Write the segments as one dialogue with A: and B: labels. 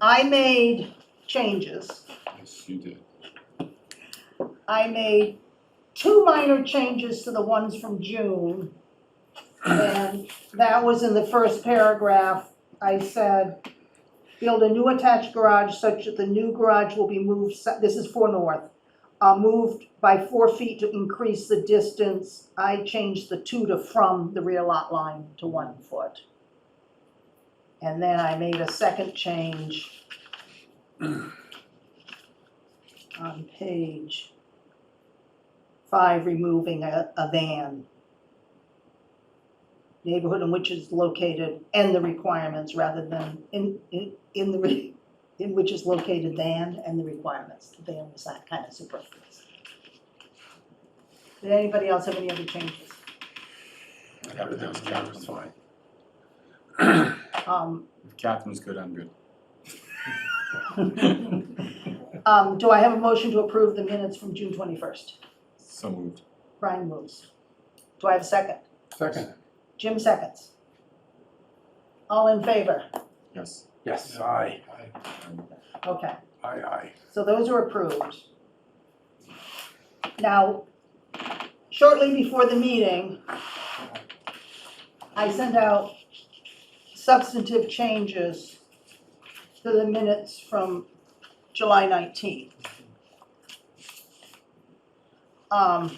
A: I made changes.
B: Yes, you did.
A: I made two minor changes to the ones from June. And that was in the first paragraph. I said, build a new attached garage such that the new garage will be moved, se- this is for north, uh, moved by four feet to increase the distance. I changed the two to from the rear lot line to one foot. And then I made a second change on page Five, removing a, a van. Neighborhood in which is located and the requirements rather than in, in, in the, re- in which is located than and the requirements. The Than was that kind of superfluous. Did anybody else have any other changes?
B: Everything was Catherine's fine.
A: Um,
B: If Catherine's good, I'm good.
A: um, do I have a motion to approve the minutes from June twenty-first?
B: So moved.
A: Brian moves. Do I have a second?
C: Second.
A: Jim seconds. All in favor?
B: Yes.
C: Yes, aye.
B: Um,
A: Okay.
C: Aye, aye.
A: So those are approved. Now, shortly before the meeting, I sent out substantive changes to the minutes from July 19th. Um,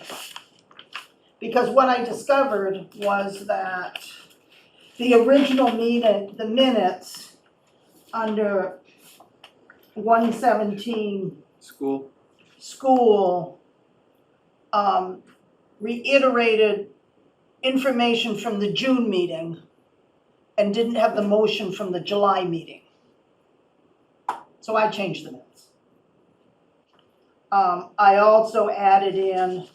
A: Because what I discovered was that the original meeting, the minutes under 117
D: School,
A: school um, reiterated information from the June meeting and didn't have the motion from the July meeting. So I changed the minutes. Um, I also added in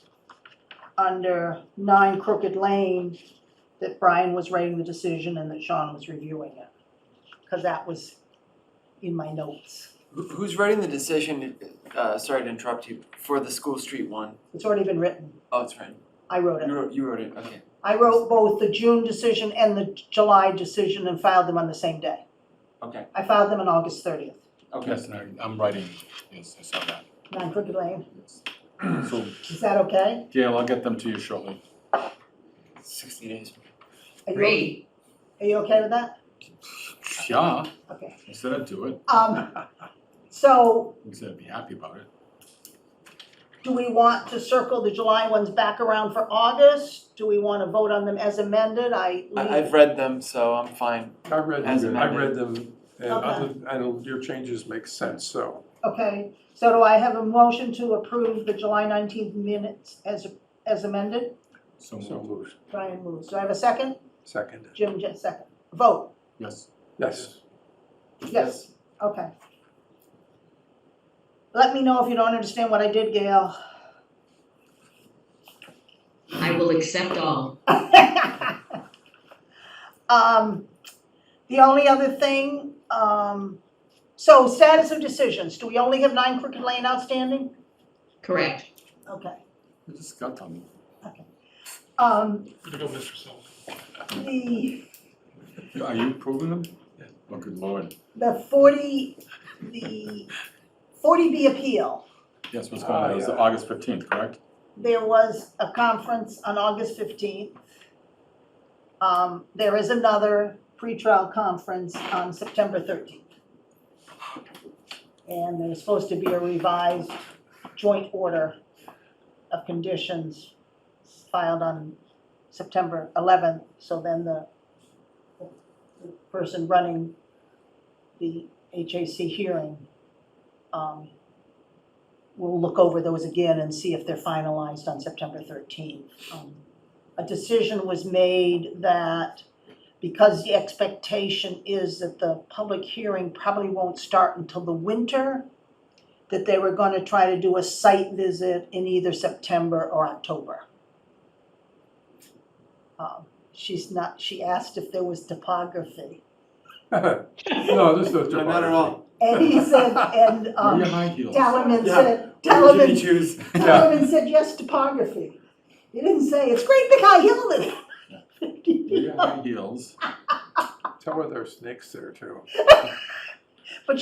A: under nine Crooked Lane that Brian was writing the decision and that Sean was reviewing it. Cause that was in my notes.
D: Who- who's writing the decision, uh, sorry to interrupt you, for the school street one?
A: It's already been written.
D: Oh, it's right,
A: I wrote it.
D: you wrote, you wrote it, okay.
A: I wrote both the June decision and the July decision and filed them on the same day.
D: Okay.
A: I filed them on August thirtieth,
D: Okay,
B: Yes, and I- I'm writing, yes, I saw that.
A: nine Crooked Lane.
B: Yes. So
A: Is that okay?
B: Gail, I'll get them to you shortly.
D: sixty days.
A: Are you- Are you okay with that?
B: Yeah,
A: Okay.
B: I said I'd do it.
A: Um, so
B: I said I'd be happy about it.
A: do we want to circle the July ones back around for August? Do we want to vote on them as amended? I
D: I, I've
A: leave,
D: read them, so I'm fine.
C: I read,
D: As
C: them. I read
D: amended.
C: them, and other, and your changes make sense, so.
A: okay. So do I have a motion to approve the July nineteenth minutes as, as amended?
B: So
C: So
B: moved.
C: moved.
A: Brian moves. Do I have a second?
C: Second.
A: Jim, just second. Vote,
B: Yes.
C: Yes.
A: yes. Okay. Let me know if you don't understand what I did, Gail.
E: I will accept all.
A: Um, the only other thing, um, so status of decisions, do we only have nine Crooked Lane outstanding?
E: Correct.
A: Okay.
B: I just got them.
A: Um,
C: Go, Mr. Sullivan.
A: the,
B: Are you approving them?
C: Yeah.
B: Oh, good lord.
A: the forty, the forty B appeal,
B: Yes, what's going on? It was
C: Ah, yeah.
B: August fifteenth, correct?
A: there was a conference on August fifteenth. Um, there is another pretrial conference on September thirteenth. And there's supposed to be a revised joint order of conditions filed on September eleventh. So then the, the person running the HAC hearing, um, will look over those again and see if they're finalized on September thirteenth. Um, A decision was made that because the expectation is that the public hearing probably won't start until the winter, that they were gonna try to do a site visit in either September or October. Um, She's not, she asked if there was topography.
C: No, there's no.
D: No, not at all.
A: And he said, and
B: Where are
A: um,
B: your high heels?
A: Talaman said,
D: Where did
A: Talaman
D: you choose?
C: Yeah.
A: Solomon said, yes, topography. He didn't say, it's great big high hill that.
B: Where are your high heels?
C: Tell her there are snakes there too.